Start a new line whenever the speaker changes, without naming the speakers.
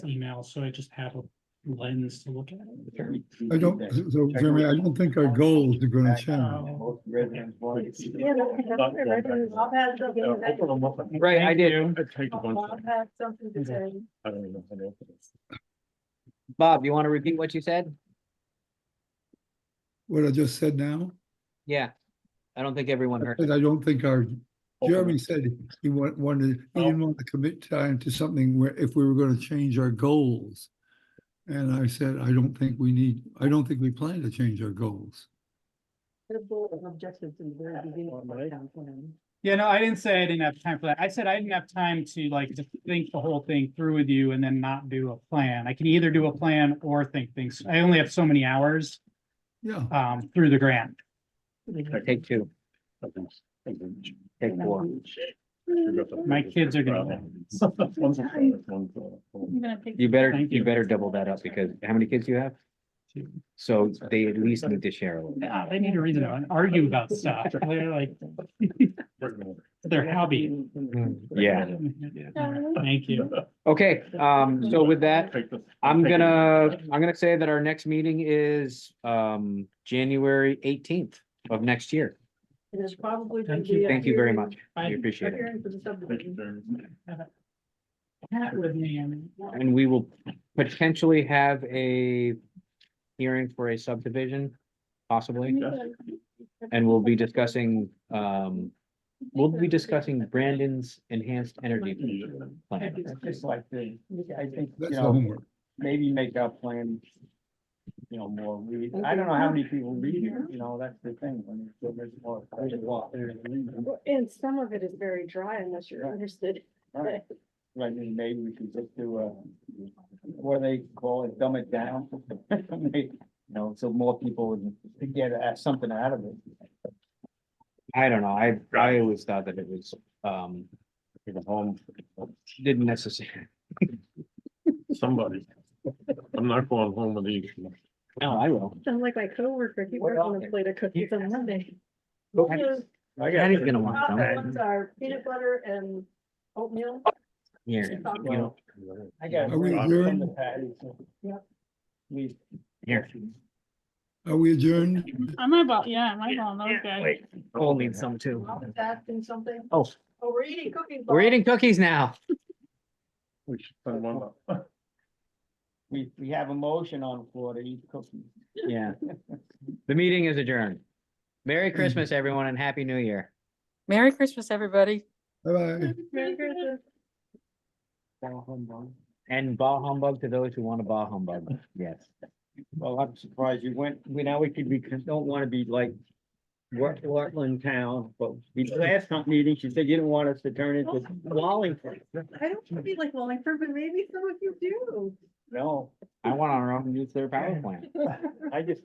email, so I just have a lens to look at it.
I don't, so Jeremy, I don't think our goals are gonna change.
Yeah, that's- that's what I read in the- Bob has something to say.
Right, I did.
Bob has something to
Mm-hmm.
say.
Bob, you want to repeat what you said?
What I just said now,
Yeah. I don't think everyone heard.
I don't think our, Jeremy said he wa- wanted, he didn't want to commit time to something where, if we were gonna change our goals. And I said, I don't think we need, I don't think we plan to change our goals.
The goal and objectives in the very beginning of the town plan.
Yeah, no, I didn't say I didn't have time for that. I said I didn't have time to like just think the whole thing through with you and then not do a plan. I can either do a plan or think things. I only have so many hours
Yeah,
um through the grant.
Take two, take four.
My kids are gonna
I'm gonna take-
You better,
Thank
you
you.
better double that up because how many kids do you have?
Two.
So they at least need to share a little.
Yeah, they need a reason to argue about stuff. They're like, their hobby.
Yeah,
Thank you.
okay, um, so with that, I'm gonna, I'm gonna say that our next meeting is um January eighteenth of next year.
It is probably. gonna
Thank you.
be a
Thank you very
hearing-
much. I appreciate
a
it.
hearing for the subdivision.
Hat with me, I mean.
And we will potentially have a hearing for a subdivision, possibly. And we'll be discussing, um, we'll be discussing Brandon's enhanced energy plan.
It's just like the, I think, you
that's the
know,
homework.
maybe make our plan, you know, more read. I don't know how many people read it, you know, that's the thing. when it's so much more- there's a lot there to read.
And some of it is very dry unless you're interested.
Right, Right, and maybe we could just do a, what do they call it, dumb it down. You know, so more people would get uh, something out of it.
I don't know, I, I always thought that it was, um,
home.
didn't necessarily,
Somebody. I'm not going home with these.
no, I will.
Sound like my coworker, he worked on a plate of cookies on Monday.
Patty's Patty's gonna want some,
Ones are peanut butter and oatmeal.
yeah, you know,
I got.
Are we adjourned?
We.
Here.
Are we adjourned?
I'm about, yeah, I'm about those guys.
Cole needs some too.
I was asking something.
Oh,
Oh, we're eating cookies.
we're
Bob.
eating cookies now.
We should send one up.
We, we have a motion on the floor to eat cookies.
Yeah. The meeting is adjourned. Merry Christmas, everyone, and Happy New Year.
Merry Christmas, everybody.
Bye-bye.
Merry Christmas.
Down home, Bob.
And bah humbug to those who want to bah humbug, yes.
Well, I'm surprised you went, we now we could, we don't wanna be like. What, Rutland town, but the last time meeting, she said you didn't want us to turn into Wallingford.
I don't want to be like Wallingford, but maybe some of you do.
No,
I want our own nuclear power plant.
I just